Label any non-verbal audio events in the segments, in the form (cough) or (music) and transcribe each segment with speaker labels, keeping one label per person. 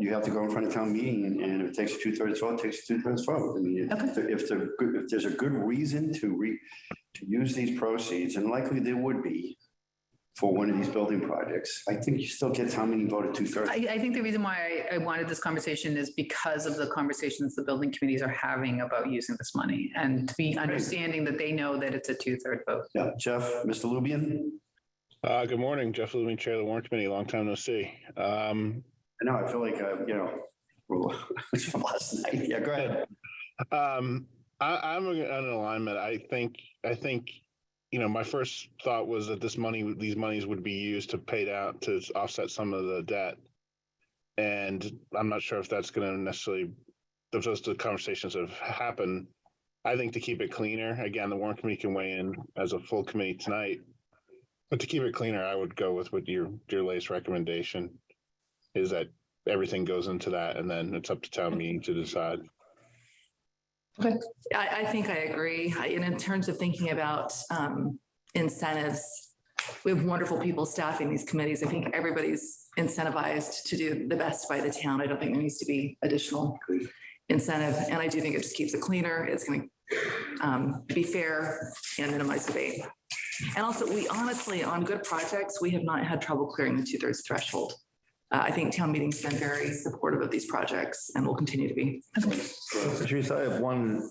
Speaker 1: you have to go in front of town meeting and, and if it takes two thirds vote, it takes two thirds vote. I mean, if,
Speaker 2: Okay.
Speaker 1: if the, good- if there's a good reason to re, to use these proceeds, and likely there would be for one of these building projects, I think you still get town meeting voted two thirds.
Speaker 2: I, I think the reason why I I wanted this conversation is because of the conversations the building committees are having about using this money and to be understanding that they know that it's a two-third vote.
Speaker 1: Yeah, Jeff, Mr. Lubian?
Speaker 3: Uh, good morning, Jeff Lubin, Chair of the Warrant Committee. Long time no see. Um,
Speaker 1: I know, I feel like, uh, you know, well, (laughs) from last night. Yeah, go ahead.
Speaker 3: um, I, I'm in an alignment. I think, I think, you know, my first thought was that this money, these monies would be used to pay down, to offset some of the debt. And I'm not sure if that's going to necessarily, if those two conversations have happened. I think to keep it cleaner, again, the Warrant Committee can weigh in as a full committee tonight. But to keep it cleaner, I would go with what your, your latest recommendation is that everything goes into that and then it's up to town meeting to decide.
Speaker 4: I, I think I agree. I- And in terms of thinking about um, incentives, we have wonderful people staffing these committees. I think everybody's incentivized to do the best by the town. I don't think there needs to be additional incentive. And I do think it just keeps it cleaner. It's going to be fair and minimize debate. And also, we honestly, on good projects, we have not had trouble clearing the two-thirds threshold. Uh, I think town meetings have been very supportive of these projects and will continue to be.
Speaker 5: Patrice, I have one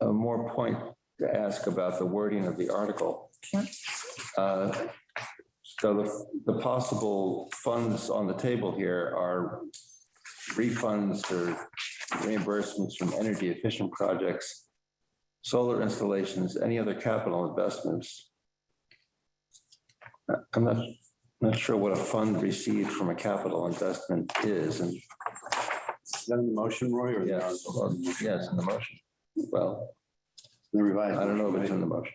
Speaker 5: uh, more point to ask about the wording of the article. Uh, So the, the possible funds on the table here are refunds or reimbursements from energy efficient projects, solar installations, any other capital investments. Uh, I'm not, not sure what a fund received from a capital investment is, and
Speaker 1: Is that in the motion, Roy, or?
Speaker 5: Yes, well, yes, in the motion. Well,
Speaker 1: The
Speaker 5: I
Speaker 1: revised.
Speaker 5: don't know if it's in the motion.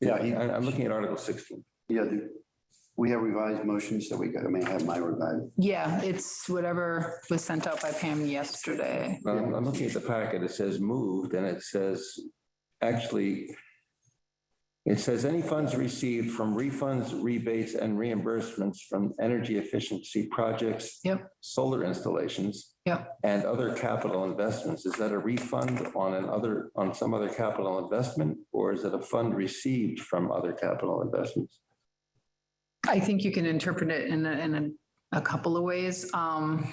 Speaker 1: Yeah, he-
Speaker 5: I- I'm looking at Article 16.
Speaker 1: Yeah, the- we have revised motions that we got. I may have my revised.
Speaker 2: Yeah, it's whatever was sent out by Pam yesterday.
Speaker 5: Um, I'm I'm looking at the packet. It says moved and it says, actually, it says any funds received from refunds, rebates and reimbursements from energy efficiency projects.
Speaker 2: Yep.
Speaker 5: Solar installations.
Speaker 2: Yep.
Speaker 5: And other capital investments. Is that a refund on another, on some other capital investment? Or is it a fund received from other capital investments?
Speaker 2: I think you can interpret it in a, in a, a couple of ways. Um,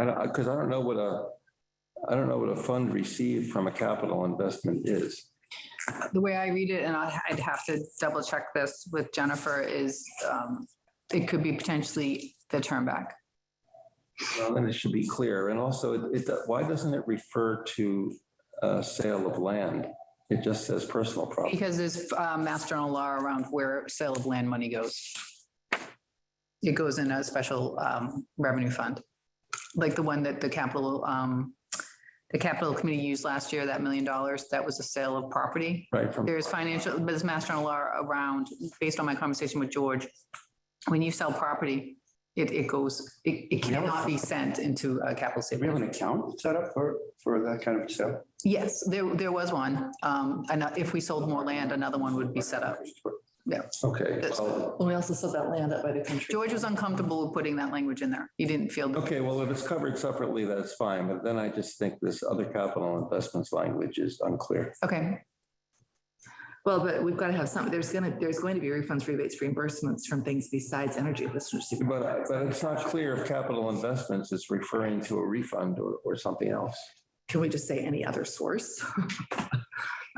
Speaker 5: I don't, because I don't know what a, I don't know what a fund received from a capital investment is.
Speaker 2: the way I read it, and I- I'd have to double check this with Jennifer, is, um, it could be potentially the turn back.
Speaker 5: And it should be clear. And also, it, it- why doesn't it refer to uh, sale of land? It just says personal property.
Speaker 2: Because there's uh, mass general law around where sale of land money goes. It goes in a special um, revenue fund, like the one that the capital, um, the capital committee used last year, that million dollars, that was a sale of property.
Speaker 5: Right, from,
Speaker 2: There's financial, there's mass general law around, based on my conversation with George, when you sell property, it, it goes, it it
Speaker 1: We have a-
Speaker 2: cannot be sent into a capital
Speaker 1: Do we have
Speaker 2: savings.
Speaker 1: an account set up for, for that kind of stuff?
Speaker 2: Yes, there, there was one. Um, And if we sold more land, another one would be set up.
Speaker 5: okay.
Speaker 2: That's-
Speaker 5: well,
Speaker 4: We also saw that land up by the country.
Speaker 2: George was uncomfortable with putting that language in there. He didn't feel,
Speaker 5: Okay, well, if it's covered separately, that's fine. But then I just think this other capital investments language is unclear.
Speaker 2: okay,
Speaker 4: Well, but we've got to have some, there's gonna, there's going to be refunds, rebates, reimbursements from things besides energy efficiency.
Speaker 5: But, but it's not clear if capital investments is referring to a refund or, or something else.
Speaker 4: Can we just say any other source? (laughs)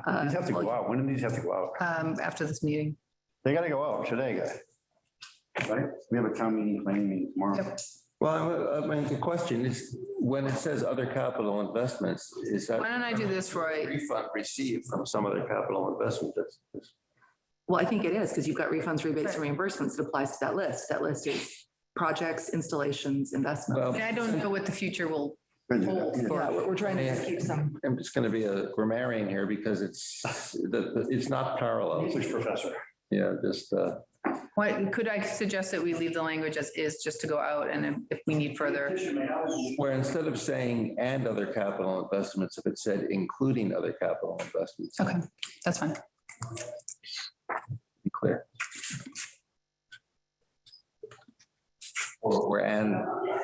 Speaker 4: Uh,
Speaker 1: These have to go out. When do these have to go out?
Speaker 2: um, after this meeting.
Speaker 1: They gotta go out today, guys. Right? We have a town meeting planning meeting tomorrow.
Speaker 2: Yep.
Speaker 5: Well, I I mean, the question is, when it says other capital investments, is that?
Speaker 2: Why don't I do this, Roy?
Speaker 5: Refund received from some other capital investment that's. that's-
Speaker 4: Well, I think it is, because you've got refunds, rebates, and reimbursements that applies to that list. That list is projects, installations, investments.
Speaker 5: Well,
Speaker 2: And I don't know what the future will
Speaker 1: Good.
Speaker 2: hold for.
Speaker 4: Yeah, we're we're trying to keep some.
Speaker 5: I'm just going to be a grammarian here because it's, the- the- it's not parallel.
Speaker 1: English professor.
Speaker 5: Yeah, just, uh,
Speaker 2: What, could I suggest that we leave the language as is just to go out and if if we need further?
Speaker 5: where instead of saying and other capital investments, if it said including other capital investments,
Speaker 2: Okay, that's fine.
Speaker 5: be clear. Or, or and